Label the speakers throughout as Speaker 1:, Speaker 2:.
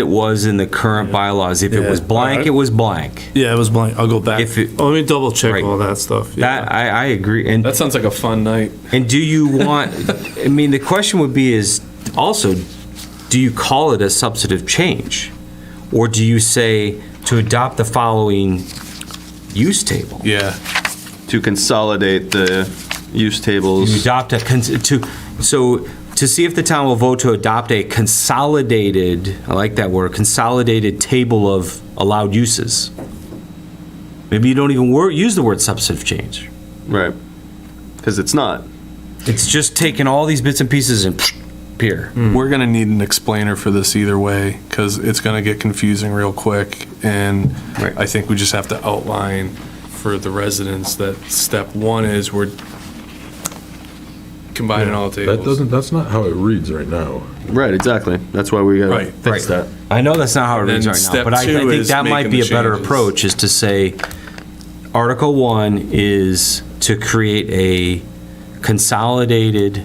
Speaker 1: it was in the current bylaws. If it was
Speaker 2: Yeah.
Speaker 1: blank, it was blank.
Speaker 2: Yeah, it was blank. I'll go back.
Speaker 1: If it-
Speaker 2: Oh, Let me double check
Speaker 1: Right.
Speaker 2: all that stuff. Yeah.
Speaker 1: That, I, I agree. And
Speaker 3: That sounds like a fun night.
Speaker 1: And do you want, I mean, the question would be is also, do you call it a substantive change? Or do you say to adopt the following use table?
Speaker 2: Yeah.
Speaker 4: to consolidate the use
Speaker 1: You
Speaker 4: tables.
Speaker 1: adopt a, cons- to, so to see if the town will vote to adopt a consolidated, I like that word, consolidated table of allowed uses. Maybe you don't even wor, use the word substantive change.
Speaker 4: Right. Because it's not.
Speaker 1: It's just taking all these bits and pieces and here.
Speaker 2: Hmm.
Speaker 5: We're going to need an explainer for this either way because it's going to get confusing real quick. And
Speaker 4: Right.
Speaker 5: I think we just have to outline for the residents that step one is we're combining all the
Speaker 6: That
Speaker 5: tables.
Speaker 6: doesn't, that's not how it reads right now.
Speaker 4: Right, exactly. That's why we gotta
Speaker 5: Right.
Speaker 4: fix that.
Speaker 1: I know that's not how it
Speaker 5: Then
Speaker 1: reads right now,
Speaker 5: step
Speaker 1: but I, I
Speaker 5: two
Speaker 1: think
Speaker 5: is
Speaker 1: that might
Speaker 5: making
Speaker 1: be a
Speaker 5: the
Speaker 1: better
Speaker 5: changes.
Speaker 1: approach is to say, Article One is to create a consolidated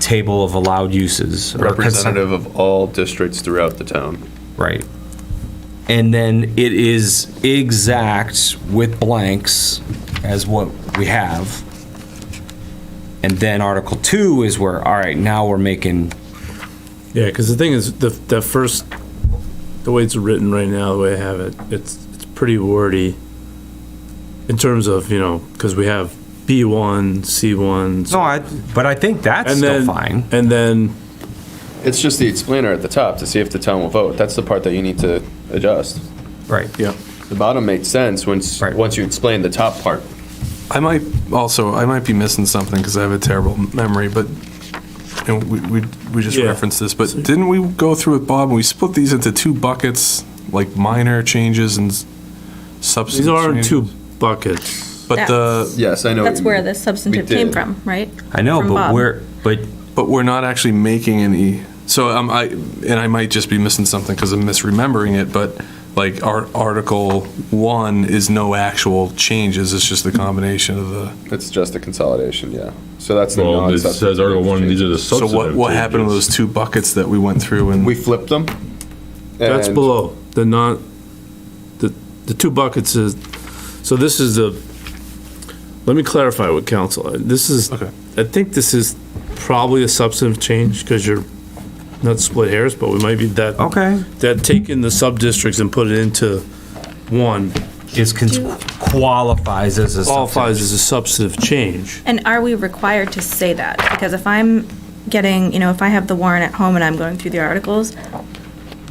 Speaker 1: table of allowed uses. or cons-
Speaker 4: Representative of all districts throughout the town.
Speaker 1: Right. And then it is exact with blanks as what we have. And then Article Two is where, all right, now we're making,
Speaker 2: Yeah, because the thing is, the, that first, the way it's written right now, the way I have it, it's, it's pretty wordy in terms of, you know, because we have B1, C1.
Speaker 1: no, I, but I think that's
Speaker 2: And
Speaker 1: still
Speaker 2: then,
Speaker 1: fine.
Speaker 2: and then,
Speaker 4: It's just the explainer at the top to see if the town will vote. That's the part that you need to adjust.
Speaker 1: Right.
Speaker 2: yeah,
Speaker 4: The bottom makes sense once,
Speaker 1: Right.
Speaker 4: once you explain the top part.
Speaker 5: I might also, I might be missing something because I have a terrible memory, but and we, we, we just
Speaker 2: Yeah.
Speaker 5: referenced this, but didn't we go through with Bob and we split these into two buckets, like minor changes and s- substance
Speaker 2: these are
Speaker 5: changes?
Speaker 2: two buckets.
Speaker 5: But the,
Speaker 4: Yes, I know. what uh,
Speaker 7: That's
Speaker 4: you
Speaker 7: where
Speaker 4: mean.
Speaker 7: the substantive
Speaker 4: We
Speaker 7: came
Speaker 4: did.
Speaker 7: from, right?
Speaker 1: I know,
Speaker 7: From
Speaker 1: but
Speaker 7: Bob.
Speaker 1: we're, but
Speaker 5: But we're not actually making any, so um, I, and I might just be missing something because I'm misremembering it, but like our Article 1 is no actual changes, it's just the combination of the,
Speaker 4: It's just a consolidation, yeah. So that's the
Speaker 6: Well, it
Speaker 4: non-substantive.
Speaker 6: says Article One, these are the
Speaker 5: so what,
Speaker 6: substantive
Speaker 5: what happened to
Speaker 6: changes.
Speaker 5: those two buckets that we went through
Speaker 4: We
Speaker 5: and,
Speaker 4: flipped them.
Speaker 2: That's
Speaker 4: and-
Speaker 2: below, the not, the, the two buckets is, so this is the, let me clarify with council. This is,
Speaker 5: Okay.
Speaker 2: I think this is probably a substantive change because you're not split hairs, but we might be that.
Speaker 1: Okay.
Speaker 2: That taking the sub-districts and put it into one
Speaker 1: is cons- qualifies as a
Speaker 2: qualifies as a substantive change.
Speaker 7: And are we required to say that? Because if I'm getting, you know, if I have the warrant at home and I'm going through the articles,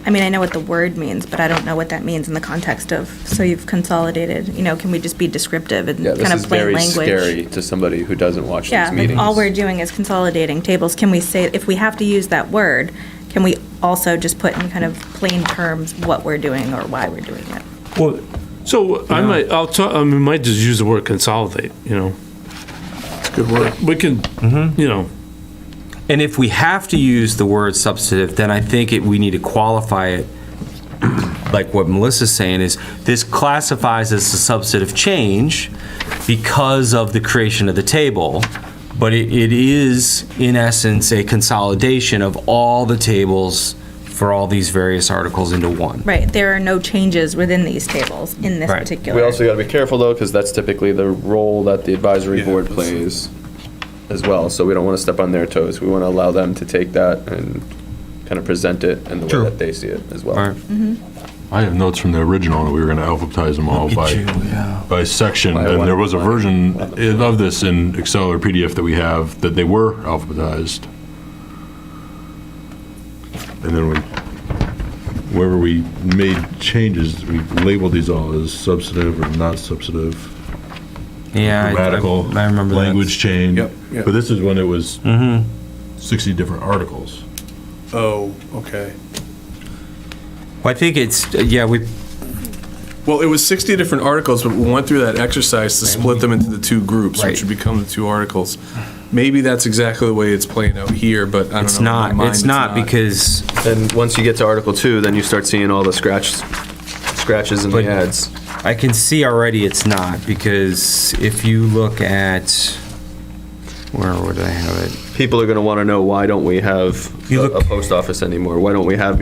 Speaker 7: I mean, I know what the word means, but I don't know what that means in the context of, so you've consolidated, you know, can we just be descriptive and
Speaker 4: Yeah, this
Speaker 7: kind of
Speaker 4: is
Speaker 7: plain
Speaker 4: very
Speaker 7: language?
Speaker 4: scary to somebody who doesn't watch these
Speaker 7: Yeah, like
Speaker 4: meetings.
Speaker 7: all we're doing is consolidating tables. Can we say, if we have to use that word, can we also just put in kind of plain terms what we're doing or why we're doing it?
Speaker 1: Well,
Speaker 2: So I might, I'll talk, I mean, might just use the word consolidate, you know? It's a good word. Mm-hmm. We can, you know,
Speaker 1: and if we have to use the word substantive, then I think it, we need to qualify it. Like what Melissa's saying is this classifies as a substantive change because of the creation of the table, but it, it is in essence a consolidation of all the tables for all these various articles into one.
Speaker 7: Right, there are no changes within these tables in this
Speaker 1: Right.
Speaker 7: particular.
Speaker 4: We also got to be careful though, because that's typically the role that the advisory board plays as well. So we don't want to step on their toes. We want to allow them to take that and kind of present it in the
Speaker 1: True.
Speaker 4: way that they see it as well.
Speaker 1: All right.
Speaker 6: I have notes from the original, that we were gonna alphabetize them all by, by section,
Speaker 4: By
Speaker 6: and
Speaker 4: one.
Speaker 6: there was a version i- of this in Excel or PDF that we have, that they were alphabetized. And then we, wherever we made changes, we labeled these all as substantive or not substantive.
Speaker 1: Yeah. I- I-
Speaker 6: grammatical
Speaker 1: I remember that. Mm-hmm.
Speaker 6: language change.
Speaker 5: Yep, yep.
Speaker 6: But this is when it was 60 different articles.
Speaker 5: oh, okay.
Speaker 1: Well, I think it's, yeah, we,
Speaker 5: Well, it was 60 different articles, but we went through that exercise to split them into the two groups,
Speaker 1: Right.
Speaker 5: which would become the two articles. Maybe that's exactly the way it's playing out here, but I don't know.
Speaker 1: it's
Speaker 5: In my
Speaker 1: not,
Speaker 5: mind,
Speaker 1: it's not because
Speaker 4: And once you get to Article Two, then you start seeing all the scratch, scratches in
Speaker 1: But-
Speaker 4: the ads.
Speaker 1: I can see already it's not, because if you look at, where would I have it?
Speaker 4: People are going to want to know, why don't we have
Speaker 1: You
Speaker 4: a
Speaker 1: look-
Speaker 4: a post office anymore? Why don't we have